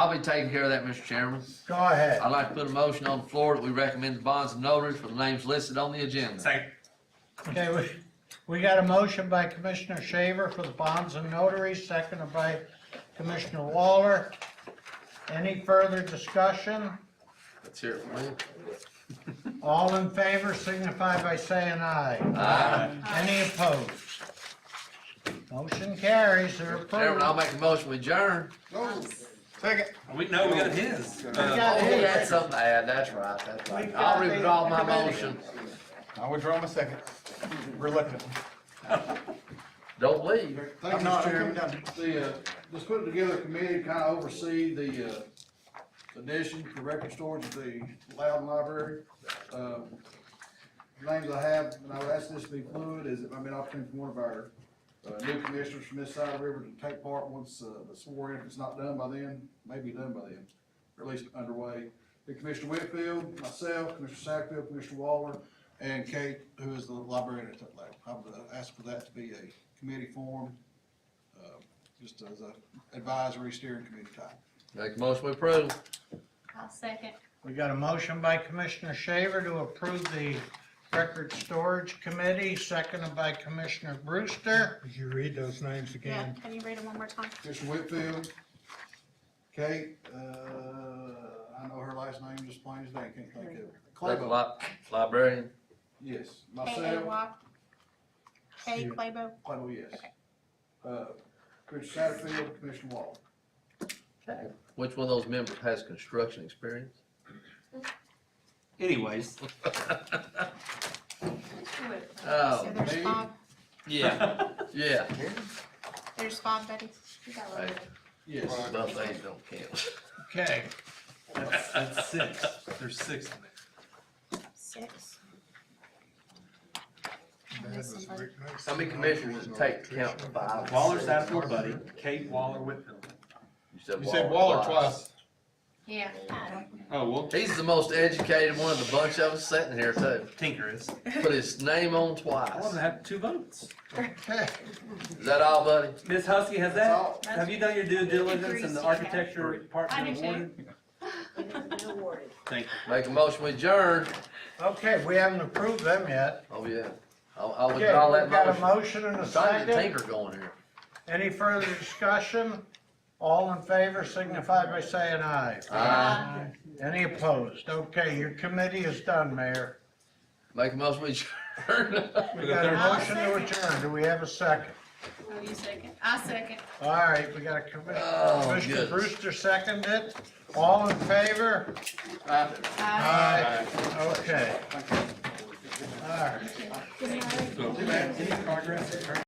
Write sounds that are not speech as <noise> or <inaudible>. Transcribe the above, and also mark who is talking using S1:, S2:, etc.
S1: I'll be taking care of that, Mr. Chairman.
S2: Go ahead.
S1: I'd like to put a motion on the floor that we recommend the bonds and notaries for the names listed on the agenda.
S3: Second.
S2: Okay, we, we got a motion by Commissioner Shaver for the bonds and notaries, seconded by Commissioner Waller. Any further discussion?
S1: Let's hear it from you.
S2: All in favor signify by saying aye.
S1: Aye.
S2: Any opposed? Motion carries, they're
S1: Chairman, I'll
S2: approved.
S1: make a motion we adjourn.
S3: We know we got his. Uh,
S2: got
S1: Oh,
S2: it.
S1: he had something to add, that's right, that's right. I'll withdraw my motion.
S4: I withdraw my second, reluctantly.
S1: Don't leave.
S5: Thank you,
S4: I'm not-
S5: Mr.
S4: I'm
S5: Chairman.
S4: coming
S5: The, uh, just putting together a committee to kind of oversee the, uh, addition to record storage of the Loudon Library. Um, Names I have, and I would ask this to be fluid, is it might be an opportunity for one of our, uh, new commissioners from this side of the river to take part once, uh, the sworn, in. if it's not done by then, may be done by then, or at least underway. The Commissioner Whitfield, myself, Commissioner Sackville, Commissioner Waller, and Kate, who is the librarian at Tupelo. I would uh, ask for that to be a committee formed, uh, just as a advisory steering committee type.
S1: Make a motion we approve.
S6: I'll second.
S2: We got a motion by Commissioner Shaver to approve the record storage committee, seconded by Commissioner Brewster.
S4: Could you read those names
S6: Yeah,
S4: again?
S6: can you read it one more time?
S5: Commissioner Whitfield, Kate, uh, I know her last name just plain as day, can't think of it. Claybo,
S1: Li- Librarian.
S5: yes,
S6: K A
S5: myself,
S6: Y. K Claybo.
S5: Claybo, yes. Uh, Commissioner Satterfield, Commissioner Waller.
S1: Which one of those members has construction experience?
S3: Anyways.
S1: Oh,
S6: So there's
S5: me?
S6: five,
S1: Yeah, <laughs> yeah.
S6: there's five, Betty. You got one.
S1: Right.
S5: Yes.
S1: Those things don't count.
S2: Okay,
S3: <laughs> That's, that's six. There's six in there.
S6: Six. I
S4: That
S6: missed
S4: was
S6: somebody.
S4: Rick Mason.
S1: How many commissioners does it take to count to five?
S3: Waller's out of buddy. Kate Waller Whitfield.
S4: You said Waller twice.
S6: Yeah. I
S3: Oh, well.
S1: He's the most educated one of the bunch of us sitting here too.
S3: Tinker is.
S1: Put his name on
S3: I
S1: twice.
S3: want to have two votes.
S1: Is that all, buddy?
S3: Ms. Husky, has
S5: That's
S3: that,
S5: all.
S3: have you done your due diligence in
S6: Agrees,
S3: the
S6: yeah.
S3: architecture
S6: I do
S3: department
S6: too.
S3: award?
S6: don't know.
S3: Thank you.
S1: Make a motion we adjourn.
S2: okay, we haven't approved them yet.
S1: Oh, yeah. I'll, I'll
S2: Okay,
S1: withdraw that
S2: we've got a
S1: motion.
S2: motion and a
S1: Trying to
S2: second.
S1: tinker going here.
S2: Any further discussion? All in favor signify by saying aye.
S1: Aye.
S2: Any opposed? Okay, your committee is done, Mayor.
S1: Make a motion we adjourn. <laughs>
S2: We got a
S6: I'll
S2: motion to adjourn. Do we have a second?
S6: Will you second? I second.
S2: All right, we got a commi-
S1: Oh,
S2: Commissioner
S1: goodness.
S2: Brewster seconded it. All in favor?
S6: Aye.
S2: Aye. Okay. All right.
S3: So, any progress?